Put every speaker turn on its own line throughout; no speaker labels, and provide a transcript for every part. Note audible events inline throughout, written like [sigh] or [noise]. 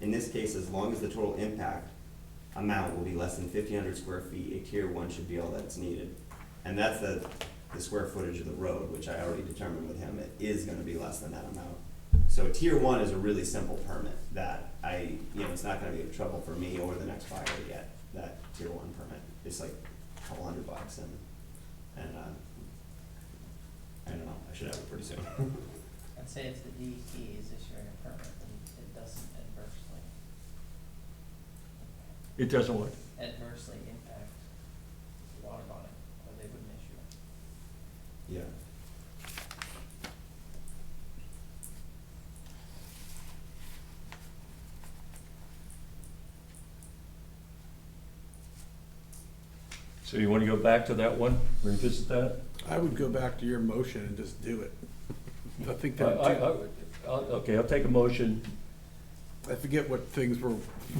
In this case, as long as the total impact amount will be less than fifteen hundred square feet, a tier one should be all that's needed. And that's the, the square footage of the road, which I already determined with him, it is gonna be less than that amount. So tier one is a really simple permit that I, you know, it's not gonna be a trouble for me or the next buyer to get that tier one permit. It's like a couple hundred bucks and, and, uh, I don't know, I should have it pretty soon. [laughs]
I'd say if the DEP is issuing a permit, then it doesn't adversely,
It doesn't what?
adversely impact water body, or they wouldn't issue it.
Yeah.
So you wanna go back to that one, revisit that?
I would go back to your motion and just do it. I think
I,
that,
I, I- I'll- okay, I'll take a motion.
I forget what things we're,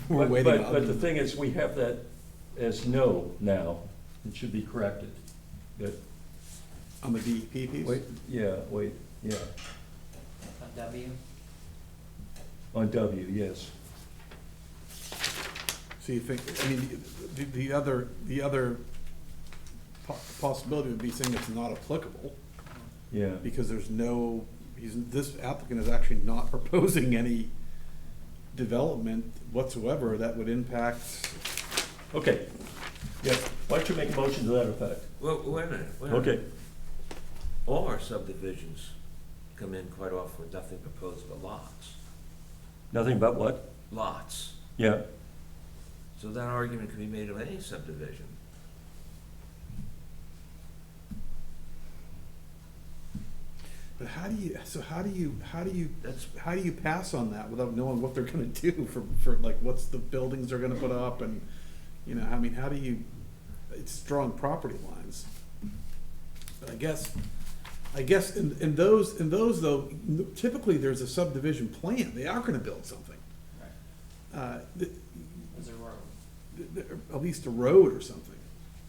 we're
But-
waiting
But, but the
on.
thing is, we have that as no now, it should be corrected. But,
On the DEP piece?
wait, yeah, wait, yeah,
On W,
on W, yes.
So you think, I mean, the, the other, the other po- possibility would be saying it's not applicable
Yeah,
because there's no, he's, this applicant is actually not [laughs] proposing any development whatsoever that would impact.
okay. Yeah, why don't you make a motion to that effect?
Well, wait a minute, wait a minute.
Okay,
All our subdivisions come in quite often with nothing proposed but lots,
nothing but what?
lots.
Yeah,
So that argument can be made of any subdivision.
But how do you, so how do you, how do you,
That's,
how do you pass on that without knowing what they're gonna do [laughs] for, for like, what's the buildings they're gonna put up and, you know, I mean, how do you, it's drawing property lines. But I guess, I guess in, in those, in those though, typically there's a subdivision plan, they are gonna build something.
Right.
Uh, th-
is a road.
th- at least a road or something.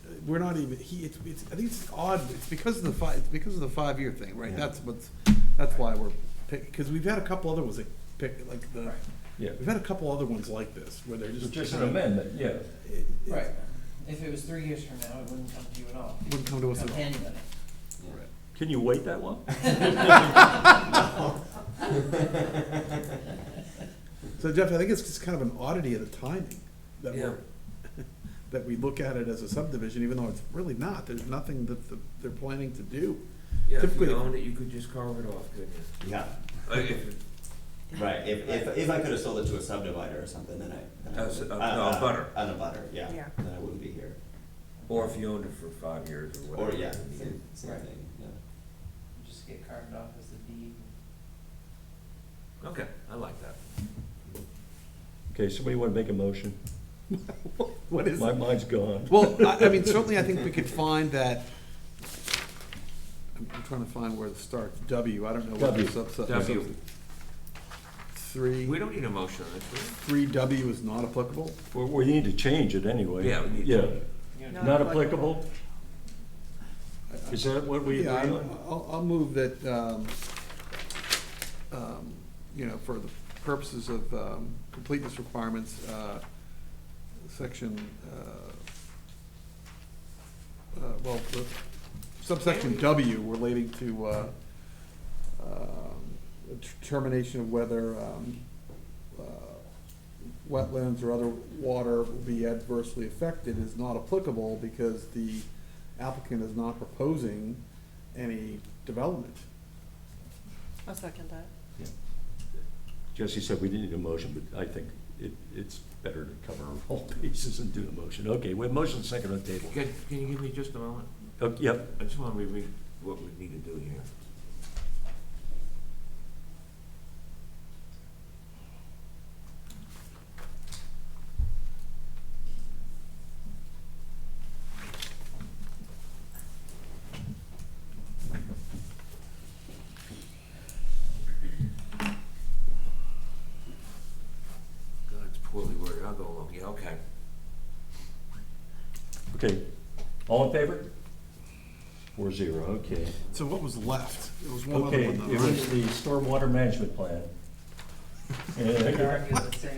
Uh, We're not even, he, it's, it's, I think it's odd, it's because of the five, it's because of the five-year thing, right?
Yeah.
That's what's, that's why we're picking, because we've had a couple other ones that pick, like the,
Right.
yeah.
we've had a couple other ones like this, where they're just.
Just an amendment, yeah.
It- it
Right. If it was three years from now, it wouldn't come to you at all.
Wouldn't come to us
Come
at
to
all.
anybody.
Right.
Can you wait that
[laughs]
long?
So Jeff, I think it's just kind of an oddity of the timing, that
Yeah.
we're, [laughs] that we look at it as a subdivision, even though it's really not, there's nothing that the, they're planning to
[laughs]
do.
yeah, if
Typically-
you owned it, you could just carve it off, couldn't you?
Yeah,
Like, if-
right, if, if, if I could have sold it to a subdivider or something, then I. then I
As a-
would-
no,
uh,
Oh, a butter.
On a butter, yeah,
Yeah.
then I wouldn't be here,
Or if you owned it for five years or
or
whatever.
yeah,
I mean,
same, same
Right.
thing, yeah.
Just get carved off as E the deed.
Okay, I like that.
Okay, somebody wanna make a motion?
What is
My
it?
mind's gone.
Well, I, I mean, certainly I think we could find that, I'm I'm trying to find where to start, W, I don't know what the
W.
sub, sub.
W.
Three,
We don't need a motion on this,
three W is not applicable?
We, we need to change it anyway.
Yeah, we need to
Yeah.
change it.
You know,
Not applicable? Is that what we agree
Yeah, I-
on?
I'll, I'll move that, um, um, you know, for the purposes of, um, completeness requirements, uh, section, uh, uh, well, the subsection W relating to, uh, um, determination of whether, um, uh, wetlands or other water will be adversely affected is not applicable because the applicant is not proposing any development.
I'll second that.
Yeah. Jesse said we didn't need a motion, but I think it, it's better to cover all [laughs] bases and do the motion. Okay, we have motion second on the table.
will you? Can, can you give me just a moment?
Oh, Yep,
I just wanna reread what we need to do here. God, it's poorly worded, I'll go along, yeah, okay.
okay. All in favor? Four zero, okay.
So what was left? It was one other
Okay,
one though,
it [laughs]
right? [laughs]
was the stormwater management plan. And I
You could
could-
argue that saying